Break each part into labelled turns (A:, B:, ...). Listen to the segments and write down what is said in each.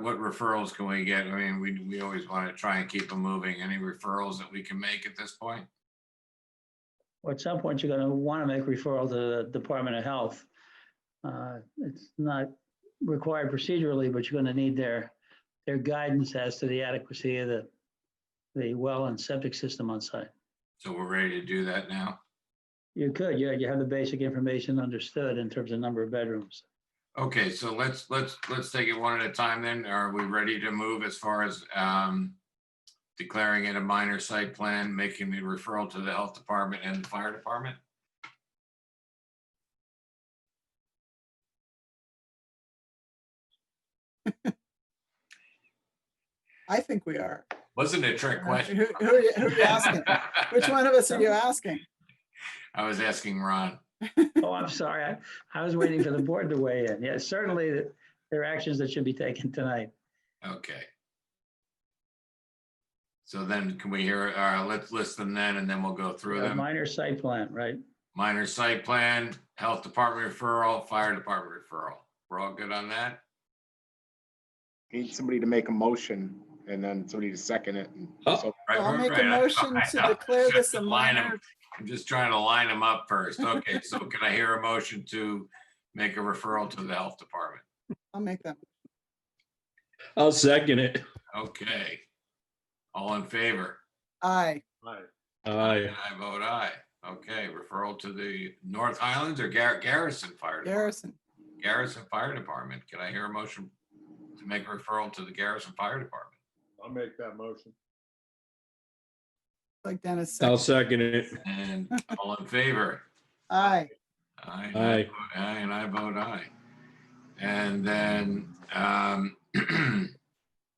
A: what referrals can we get? I mean, we, we always want to try and keep them moving. Any referrals that we can make at this point?
B: Or at some point, you're gonna wanna make referral to the Department of Health. Uh, It's not required procedurally, but you're gonna need their, their guidance as to the adequacy of the, the well and septic system on site.
A: So we're ready to do that now?
B: You could, yeah, you have the basic information understood in terms of number of bedrooms.
A: Okay, so let's, let's, let's take it one at a time then. Are we ready to move as far as um, declaring it a minor site plan, making the referral to the health department and the fire department?
C: I think we are. Uh,
A: Wasn't a trick question.
C: Who, who are you, who are you asking? Which one of us are you asking?
A: I was asking Ron.
B: Oh, I'm sorry, I, I was waiting for the board to weigh in. Yes, certainly, th- there are actions that should be taken tonight.
A: Okay. So then can we hear, uh, let's list them then and then we'll go through
B: A
A: them.
B: minor site plan, right?
A: Minor site plan, health department referral, fire department referral. We're all good on that?
D: Need somebody to make a motion and then somebody to second it. and
E: Oh.
D: so-
A: Right,
C: I'll
A: right,
C: make a
A: right.
C: motion
A: I
C: to
A: know.
C: declare this a
A: Line 'em.
C: minor,
A: I'm just trying to line them up first. Okay, so can I hear a motion to make a referral to the health department?
C: I'll make that.
E: I'll second it.
A: Okay. All in favor?
C: Aye,
E: Aye.
A: And I vote aye. Okay, referral to the North Highlands or Gar- Garrison Fire Department?
C: Garrison.
A: Garrison Fire Department. Can I hear a motion to make a referral to the Garrison Fire Department?
F: I'll make that motion.
C: Like Dennis
E: I'll
C: said,
E: second it.
A: And all in favor?
C: aye.
A: Aye. and I
E: Aye.
A: vote Aye, and I vote aye. And then, um,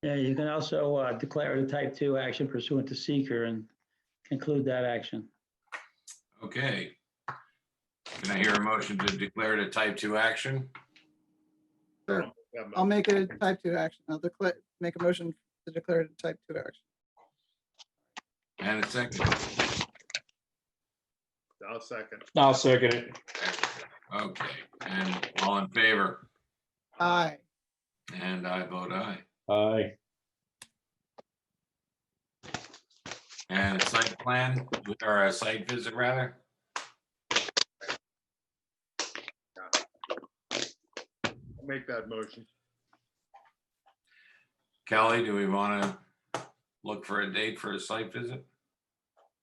B: Yeah, you can also uh, declare it a type two action pursuant to seeker and conclude that action.
A: okay. Can I hear a motion to declare it a type two action?
F: That
C: I'll
F: motion.
C: make it a type two action. I'll declare, make a motion to declare it a type two action.
A: And a second.
F: I'll second.
E: I'll second it.
A: Okay, and all in favor?
C: Aye.
A: And I vote aye.
E: Aye.
A: And site plan, or a site visit rather?
F: I'll Make that motion.
A: Kelly, do we want to look for a date for a site visit?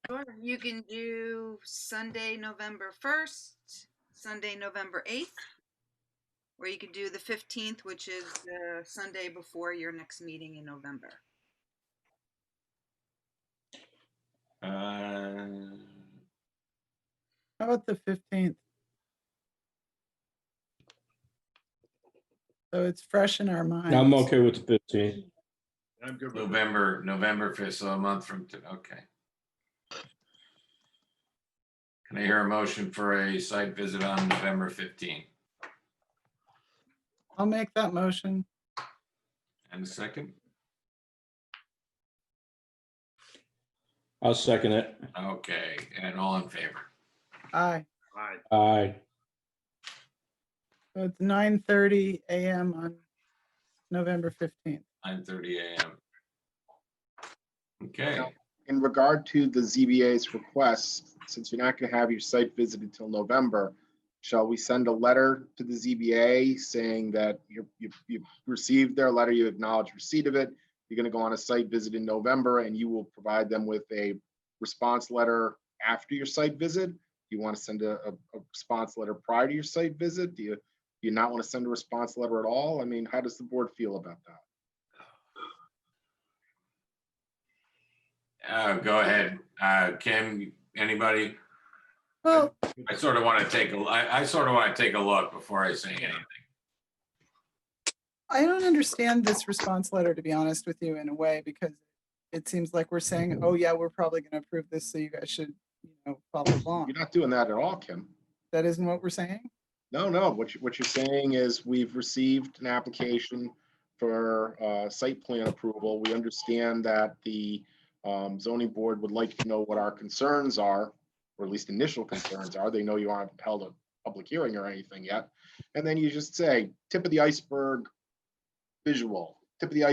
G: Sure, you can do Sunday, November first, Sunday, November eighth. Or you can do the fifteenth, which is the Sunday before your next meeting in November.
A: Uh,
C: How about the fifteenth? So it's fresh in our minds.
E: I'm okay with the fifteen.
F: I'm good with that.
A: November, November fifth, so a month from, to- okay. Can I hear a motion for a site visit on November fifteenth?
C: I'll make that motion.
A: And a second?
E: I'll second it.
A: Okay, and all in favor?
C: Aye.
F: Aye.
E: Aye.
C: So it's nine thirty AM on November fifteenth.
A: Nine thirty AM. Okay,
D: In regard to the ZBA's request, since you're not going to have your site visit until November, shall we send a letter to the ZBA saying that you- you- you've received their letter, you acknowledge receipt of it, you're going to go on a site visit in November, and you will provide them with a response letter after your site visit? Do you want to send a, a a response letter prior to your site visit? Do you, do you not want to send a response letter at all? I mean, how does the board feel about that?
A: uh, go ahead. Uh, Kim, anybody?
C: Well,
A: I sort of want to take, a. I sort of want to take a look before I say anything.
C: I don't understand this response letter, to be honest with you, in a way, because it seems like we're saying, oh, yeah, we're probably gonna approve this, so you guys should, you know, follow along.
D: You're not doing that at all, Kim.
C: That isn't what we're saying?
D: No, no, what you, what you're saying is we've received an application for, uh, site plan approval. We understand that the, um, zoning board would like to know what our concerns are, or at least initial concerns are. They know you aren't held a public hearing or anything yet. And then you just say, tip of the iceberg visual, tip of the